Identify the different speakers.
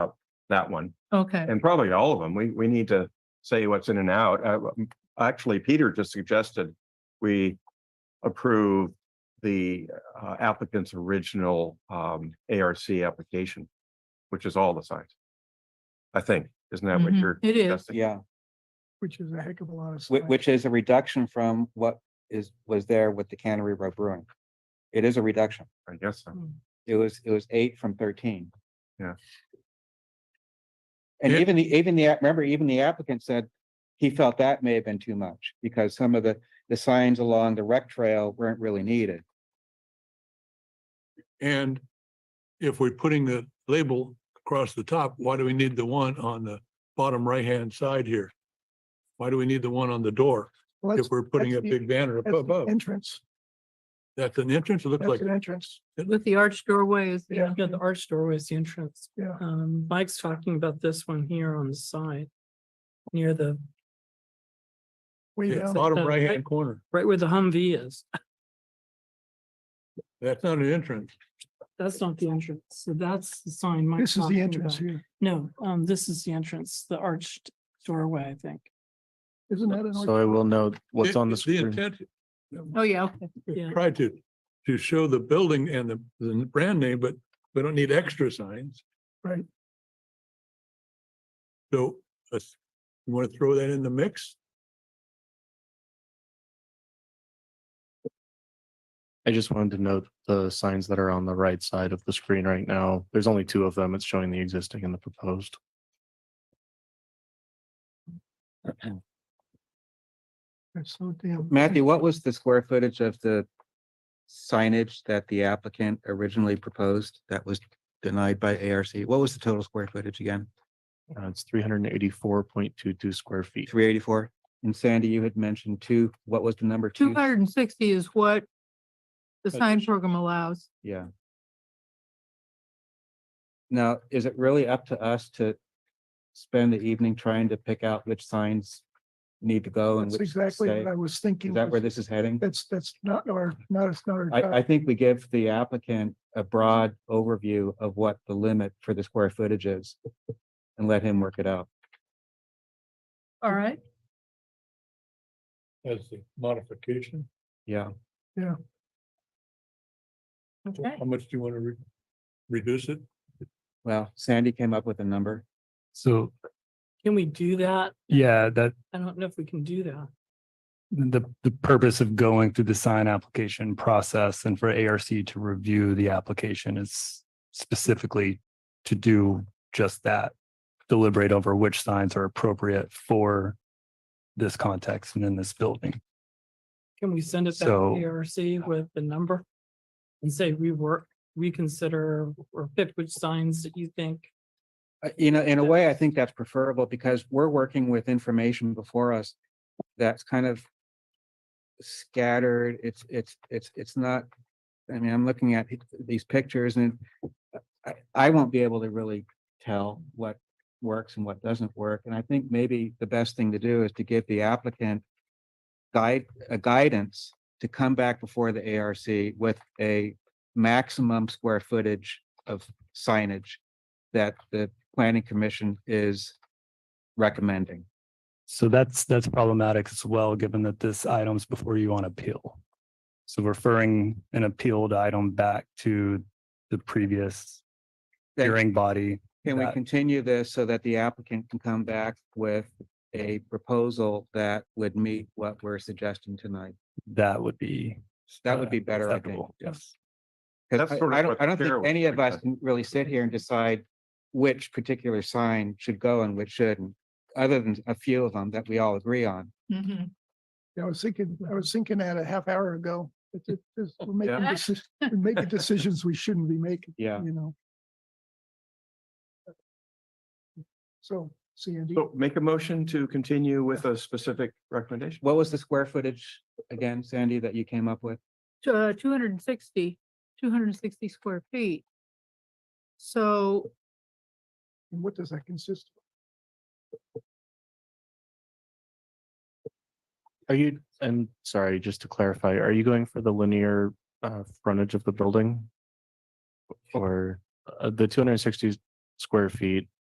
Speaker 1: that one
Speaker 2: Okay,
Speaker 1: and probably all of them. We, we need to say what's in and out. Uh, Actually, Peter just suggested we approve the uh, applicant's original um, ARC application, which is all the signs. I think, isn't that what
Speaker 2: Mhm.
Speaker 1: you're?
Speaker 2: It is.
Speaker 1: suggesting?
Speaker 3: Yeah,
Speaker 4: which is a heck of a lot of.
Speaker 3: which,
Speaker 4: slack.
Speaker 3: which is a reduction from what is, was there with the Cannery Row Brewing. It is a reduction.
Speaker 1: I guess so.
Speaker 4: Mm.
Speaker 3: It was, it was eight from thirteen.
Speaker 1: Yeah.
Speaker 3: And
Speaker 5: Yeah.
Speaker 3: even the, even the, app- remember, even the applicant said he felt that may have been too much because some of the, the signs along the rec trail weren't really needed.
Speaker 5: And if we're putting the label across the top, why do we need the one on the bottom right-hand side here? Why do we need the one on the door
Speaker 4: Well,
Speaker 5: if
Speaker 4: that's-
Speaker 5: we're putting a
Speaker 4: that's the-
Speaker 5: big banner up
Speaker 4: that's the
Speaker 5: above?
Speaker 4: Entrance,
Speaker 5: That's an entrance. It looks
Speaker 4: that's
Speaker 5: like,
Speaker 4: an entrance.
Speaker 2: with the arch doorway is,
Speaker 4: Yeah.
Speaker 2: yeah,
Speaker 6: Yeah, the arch door is the entrance.
Speaker 4: Yeah.
Speaker 6: Um, Mike's talking about this one here on the side. Near the,
Speaker 4: Way
Speaker 5: yeah,
Speaker 4: down.
Speaker 5: bottom
Speaker 6: Uh,
Speaker 5: right-hand
Speaker 6: right-
Speaker 5: corner.
Speaker 6: right where the Humvee is.
Speaker 5: That's not an entrance.
Speaker 6: That's not the entrance. So that's the sign Mike's
Speaker 4: This is
Speaker 6: talking
Speaker 4: the entrance
Speaker 6: about.
Speaker 4: here.
Speaker 6: No, um, this is the entrance, the arched doorway, I think.
Speaker 4: Isn't that an?
Speaker 7: So I will know what's
Speaker 5: It-
Speaker 7: on the screen.
Speaker 5: intent
Speaker 2: oh yeah,
Speaker 1: Mm-hmm.
Speaker 2: okay.
Speaker 6: Yeah.
Speaker 5: Try to, to show the building and the, the brand name, but we don't need extra signs.
Speaker 4: Right.
Speaker 5: So, let's, you want to throw that in the mix?
Speaker 7: I just wanted to note the signs that are on the right side of the screen right now. There's only two of them. It's showing the existing and the proposed.
Speaker 4: That's So damn.
Speaker 3: Matthew, what was the square footage of the signage that the applicant originally proposed that was denied by ARC? What was the total square footage again?
Speaker 7: Uh, it's three hundred and eighty-four point two-two square feet.
Speaker 3: Three eighty-four? And Sandy, you had mentioned two, what was the number?
Speaker 2: Two hundred and sixty is what the
Speaker 5: That's
Speaker 2: sign program allows.
Speaker 3: Yeah. Now, is it really up to us to spend the evening trying to pick out which signs need to go and
Speaker 4: That's
Speaker 3: which
Speaker 4: exactly
Speaker 3: stay?
Speaker 4: what I was thinking.
Speaker 3: Is that where
Speaker 4: was-
Speaker 3: this is heading?
Speaker 4: That's, that's not our, not, it's not our.
Speaker 3: I,
Speaker 4: job.
Speaker 3: I think we give the applicant a broad overview of what the limit for the square footage is and let him work it out.
Speaker 2: All right,
Speaker 5: As the modification,
Speaker 3: Yeah.
Speaker 5: So
Speaker 2: okay.
Speaker 5: how much do you want to re- reduce it?
Speaker 3: Well, Sandy came up with a number.
Speaker 8: So,
Speaker 6: Can we do that?
Speaker 8: yeah, that
Speaker 6: I don't know if we can do that.
Speaker 8: the, the purpose of going through the sign application process and for ARC to review the application is specifically to do just that. Deliberate over which signs are appropriate for this context and in this building.
Speaker 6: Can we send it back
Speaker 8: So-
Speaker 6: to ARC with the number? And say rework, reconsider, or pick which signs that you think
Speaker 3: Uh, You know, in a way, I think that's preferable because we're working with information before us that's kind of scattered. It's, it's, it's, it's not, I mean, I'm looking at it- these pictures and uh, I, I won't be able to really tell what works and what doesn't work. And I think maybe the best thing to do is to give the applicant guide, a guidance to come back before the ARC with a maximum square footage of signage that the planning commission is recommending.
Speaker 8: So that's, that's problematic as well, given that this item's before you on appeal. So referring an appealed item back to the previous
Speaker 3: Then
Speaker 8: hearing body
Speaker 3: Can we
Speaker 8: that.
Speaker 3: continue this so that the applicant can come back with a proposal that would meet what we're suggesting tonight?
Speaker 8: that would be.
Speaker 3: That would
Speaker 8: uh,
Speaker 3: be better, I think.
Speaker 8: acceptable. Yes.
Speaker 3: Because
Speaker 1: That's sort of
Speaker 3: I I don't,
Speaker 1: what
Speaker 3: I don't
Speaker 1: Sarah
Speaker 3: think
Speaker 1: was
Speaker 3: any of us
Speaker 1: thinking.
Speaker 3: can really sit here and decide which particular sign should go and which shouldn't, other than a few of them that we all agree on.
Speaker 2: Mhm.
Speaker 4: Yeah, I was thinking, I was thinking that a half hour ago. It's- it's- it's- We're making,
Speaker 2: Yeah.
Speaker 4: deci- we're making decisions we shouldn't be making,
Speaker 3: Yeah.
Speaker 4: you know? So, Sandy,
Speaker 1: So make a motion to continue with a specific recommendation.
Speaker 3: What was the square footage again, Sandy, that you came up with?
Speaker 2: Two hundred and sixty, uh, two hundred and sixty square feet. So
Speaker 4: and what does that consist? of?
Speaker 7: Are you, and sorry, just to clarify, are you going for the linear uh frontage of the building? Or uh, the two hundred and sixty square feet